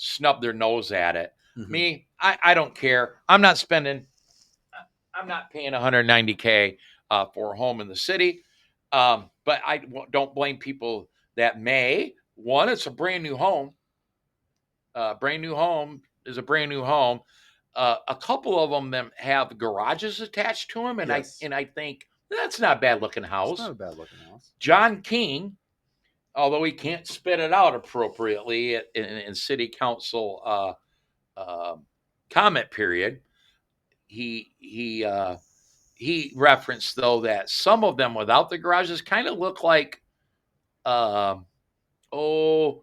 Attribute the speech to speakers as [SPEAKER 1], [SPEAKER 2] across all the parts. [SPEAKER 1] snub their nose at it.
[SPEAKER 2] Mhm.
[SPEAKER 1] Me, I, I don't care. I'm not spending, I'm not paying 190K uh, for a home in the city. Um, but I w- don't blame people that may. One, it's a brand new home. Uh, brand new home is a brand new home. Uh, a couple of them them have garages attached to them, and
[SPEAKER 2] Yes.
[SPEAKER 1] I and I think that's not a bad looking house.
[SPEAKER 2] It's not a bad looking house.
[SPEAKER 1] John King, although he can't spit it out appropriately in, in city council uh, uh, comment period, he he uh, he referenced though that some of them without the garages kind of look like, um oh,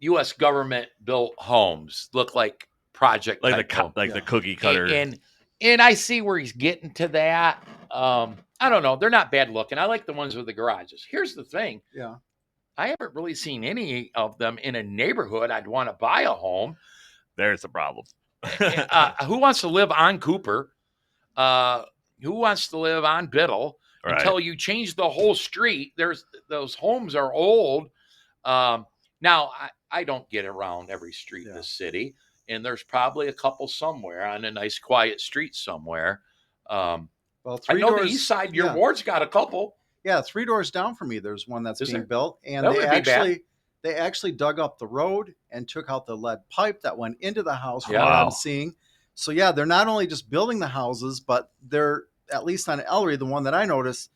[SPEAKER 1] U.S. government built homes look like project
[SPEAKER 3] like the
[SPEAKER 1] type
[SPEAKER 3] co-
[SPEAKER 1] home.
[SPEAKER 3] like
[SPEAKER 2] Yeah.
[SPEAKER 3] the cookie cutter.
[SPEAKER 1] And, and and I see where he's getting to that. Um, I don't know. They're not bad looking. I like the ones with the garages. Here's the thing.
[SPEAKER 2] Yeah.
[SPEAKER 1] I haven't really seen any of them in a neighborhood I'd want to buy a home.
[SPEAKER 3] There's the problem.
[SPEAKER 1] Uh, who wants to live on Cooper? Uh, who wants to live on Biddle?
[SPEAKER 3] right.
[SPEAKER 1] until you change the whole street. There's those homes are old. Um, now I, I don't get around every street in
[SPEAKER 2] Yeah.
[SPEAKER 1] the city, and there's probably a couple somewhere on a nice quiet street somewhere. Um,
[SPEAKER 2] Well,
[SPEAKER 1] I
[SPEAKER 2] three
[SPEAKER 1] know
[SPEAKER 2] doors.
[SPEAKER 1] the east side. Your
[SPEAKER 2] yeah.
[SPEAKER 1] ward's got a couple.
[SPEAKER 2] yeah, three doors down from me. There's one that's
[SPEAKER 1] Is
[SPEAKER 2] being
[SPEAKER 1] there?
[SPEAKER 2] built, and
[SPEAKER 1] That
[SPEAKER 2] they
[SPEAKER 1] wouldn't be bad.
[SPEAKER 2] actually they actually dug up the road and took out the lead pipe that went into the house. From
[SPEAKER 1] Yeah.
[SPEAKER 2] what
[SPEAKER 3] Wow.
[SPEAKER 2] I'm seeing. So yeah, they're not only just building the houses, but they're at least on Ellery. The one that I noticed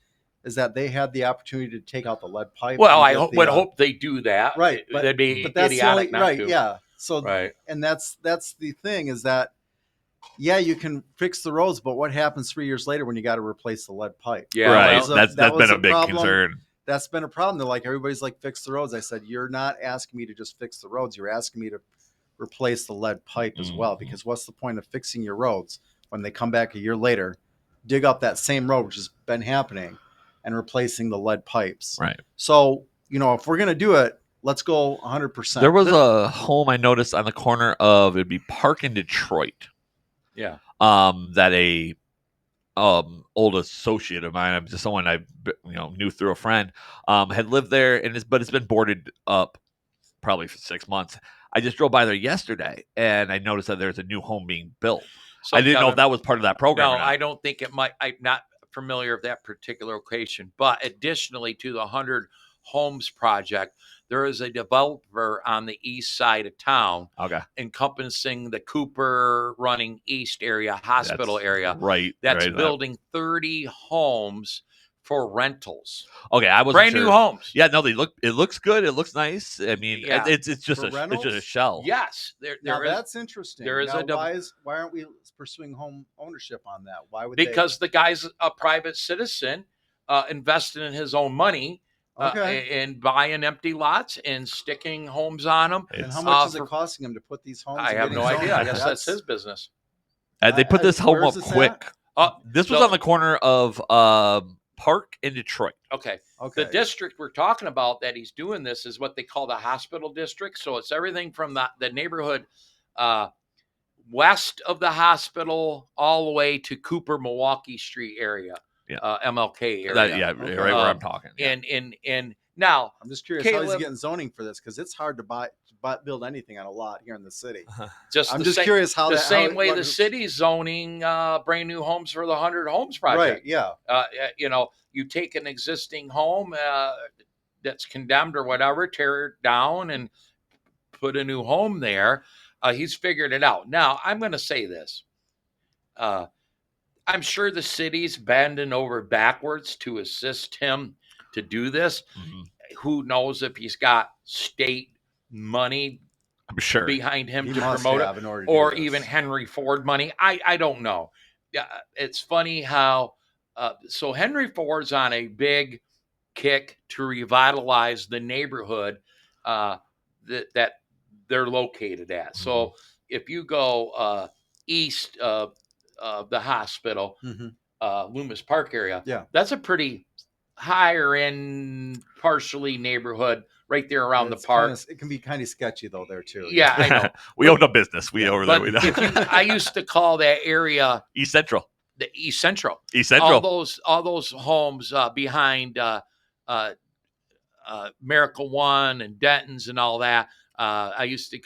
[SPEAKER 2] is that they had the opportunity to take out the lead pipe.
[SPEAKER 1] Well,
[SPEAKER 2] and
[SPEAKER 1] I
[SPEAKER 2] get
[SPEAKER 1] hope,
[SPEAKER 2] the,
[SPEAKER 1] would
[SPEAKER 2] uh,
[SPEAKER 1] hope they do that.
[SPEAKER 2] right, but-
[SPEAKER 1] that'd be
[SPEAKER 2] But that's the
[SPEAKER 1] idiotic
[SPEAKER 2] only
[SPEAKER 1] not
[SPEAKER 2] right.
[SPEAKER 1] to.
[SPEAKER 2] Yeah. So
[SPEAKER 1] right.
[SPEAKER 2] and that's that's the thing is that yeah you can fix the roads but what happens three years later when you got to replace the lead pipe
[SPEAKER 1] Yeah,
[SPEAKER 3] right.
[SPEAKER 1] well,
[SPEAKER 2] So
[SPEAKER 3] that's
[SPEAKER 2] that
[SPEAKER 3] that's
[SPEAKER 2] was
[SPEAKER 3] been a
[SPEAKER 2] a
[SPEAKER 3] big
[SPEAKER 2] problem.
[SPEAKER 3] concern.
[SPEAKER 2] that's been a problem they're like everybody's like fix the roads i said you're not asking me to just fix the roads you're asking me to replace the lead pipe as well
[SPEAKER 3] Mhm.
[SPEAKER 2] because what's the point of fixing your roads when they come back a year later dig up that same road which has been happening and replacing the lead pipes
[SPEAKER 3] Right.
[SPEAKER 2] so you know if we're going to do it let's go 100%
[SPEAKER 3] There was a home I noticed on the corner of it'd be Park in Detroit.
[SPEAKER 1] Yeah.
[SPEAKER 3] Um, that a um old associate of mine, I'm just someone I b- you know knew through a friend, um, had lived there and it's but it's been boarded up probably for six months. I just drove by there yesterday and I noticed that there's a new home being built.
[SPEAKER 1] So,
[SPEAKER 3] I didn't know
[SPEAKER 1] Kevin,
[SPEAKER 3] if that was part of that program.
[SPEAKER 1] No,
[SPEAKER 3] or not.
[SPEAKER 1] I don't think it might. I'm not familiar of that particular location. But additionally to the 100 Homes project, there is a developer on the east side of town
[SPEAKER 3] okay.
[SPEAKER 1] encompassing the Cooper running east area, hospital
[SPEAKER 3] That's
[SPEAKER 1] area,
[SPEAKER 3] Right.
[SPEAKER 1] that's
[SPEAKER 3] right, that-
[SPEAKER 1] building 30 homes for rentals.
[SPEAKER 3] Okay, I was
[SPEAKER 1] Brand new homes.
[SPEAKER 3] Yeah, no, they look. It looks good. It looks nice. I mean, it-
[SPEAKER 1] Yeah.
[SPEAKER 3] it's it's just
[SPEAKER 2] For
[SPEAKER 3] a it's just a
[SPEAKER 2] rentals?
[SPEAKER 3] shell.
[SPEAKER 1] Yes. There,
[SPEAKER 2] Now
[SPEAKER 1] there is-
[SPEAKER 2] that's interesting.
[SPEAKER 1] there is a
[SPEAKER 2] Now,
[SPEAKER 1] dev-
[SPEAKER 2] why is why aren't we pursuing home ownership on that? Why would
[SPEAKER 1] because the guy's a private citizen uh, investing in his own money
[SPEAKER 2] they,
[SPEAKER 1] uh,
[SPEAKER 2] okay?
[SPEAKER 1] a- and buying empty lots and sticking homes on them.
[SPEAKER 2] and
[SPEAKER 3] It's-
[SPEAKER 2] how
[SPEAKER 3] uh,
[SPEAKER 2] much
[SPEAKER 1] uh,
[SPEAKER 2] is
[SPEAKER 1] for-
[SPEAKER 2] it costing him to put these homes?
[SPEAKER 1] I
[SPEAKER 2] and
[SPEAKER 1] have
[SPEAKER 2] getting
[SPEAKER 1] no
[SPEAKER 2] zoned?
[SPEAKER 1] idea. I guess that's his business.
[SPEAKER 3] they put
[SPEAKER 2] uh,
[SPEAKER 3] this home
[SPEAKER 2] where
[SPEAKER 3] up
[SPEAKER 2] is this at?
[SPEAKER 3] quick. Uh, this was
[SPEAKER 1] so-
[SPEAKER 3] on the corner of um, Park in Detroit.
[SPEAKER 1] Okay.
[SPEAKER 2] Okay.
[SPEAKER 1] The district we're talking about that he's doing this is what they call the hospital district. So it's everything from the, the neighborhood uh, west of the hospital all the way to Cooper, Milwaukee Street area,
[SPEAKER 3] Yeah.
[SPEAKER 1] uh, MLK area.
[SPEAKER 3] That- yeah,
[SPEAKER 2] Okay.
[SPEAKER 3] right where
[SPEAKER 1] Um,
[SPEAKER 3] I'm talking. Yeah.
[SPEAKER 1] And, and, and now,
[SPEAKER 2] I'm just curious how he's
[SPEAKER 1] Caleb-
[SPEAKER 2] getting zoning for this because it's hard to buy, to buy build anything on a lot here in the city.
[SPEAKER 1] just
[SPEAKER 2] I'm
[SPEAKER 1] the
[SPEAKER 2] just
[SPEAKER 1] same,
[SPEAKER 2] curious how
[SPEAKER 1] the
[SPEAKER 2] that, how
[SPEAKER 1] same
[SPEAKER 2] it-
[SPEAKER 1] way
[SPEAKER 2] what-
[SPEAKER 1] the city's zoning uh, brand new homes for the 100 homes project.
[SPEAKER 2] Right. Yeah.
[SPEAKER 1] uh, uh, you know, you take an existing home uh, that's condemned or whatever, tear it down and put a new home there. Uh, he's figured it out. Now, I'm going to say this. Uh, I'm sure the city's bending over backwards to assist him to do this.
[SPEAKER 3] Mhm.
[SPEAKER 1] Who knows if he's got state money
[SPEAKER 3] I'm sure.
[SPEAKER 1] behind him
[SPEAKER 2] He
[SPEAKER 1] to
[SPEAKER 2] must
[SPEAKER 1] promote it?
[SPEAKER 2] have in order to do
[SPEAKER 1] or
[SPEAKER 2] this.
[SPEAKER 1] even Henry Ford money. I I don't know. Yeah, it's funny how uh, so Henry Ford's on a big kick to revitalize the neighborhood uh, that that they're located at. So
[SPEAKER 2] Mm-hmm.
[SPEAKER 1] if you go uh, east of of the hospital,
[SPEAKER 2] Mhm.
[SPEAKER 1] uh, Loomis Park area,
[SPEAKER 2] Yeah.
[SPEAKER 1] that's a pretty higher end, partially neighborhood right there around
[SPEAKER 2] It's
[SPEAKER 1] the park.
[SPEAKER 2] kinda- it can be kind of sketchy though there too.
[SPEAKER 1] yeah, I know.
[SPEAKER 3] we own a business. We over there.
[SPEAKER 1] But
[SPEAKER 3] We
[SPEAKER 1] if you,
[SPEAKER 3] know.
[SPEAKER 1] I used to call that area
[SPEAKER 3] East Central.
[SPEAKER 1] the East Central.
[SPEAKER 3] East
[SPEAKER 1] All
[SPEAKER 3] Central.
[SPEAKER 1] those all those homes uh, behind uh, uh, uh, Miracle One and Denton's and all that. Uh, I used to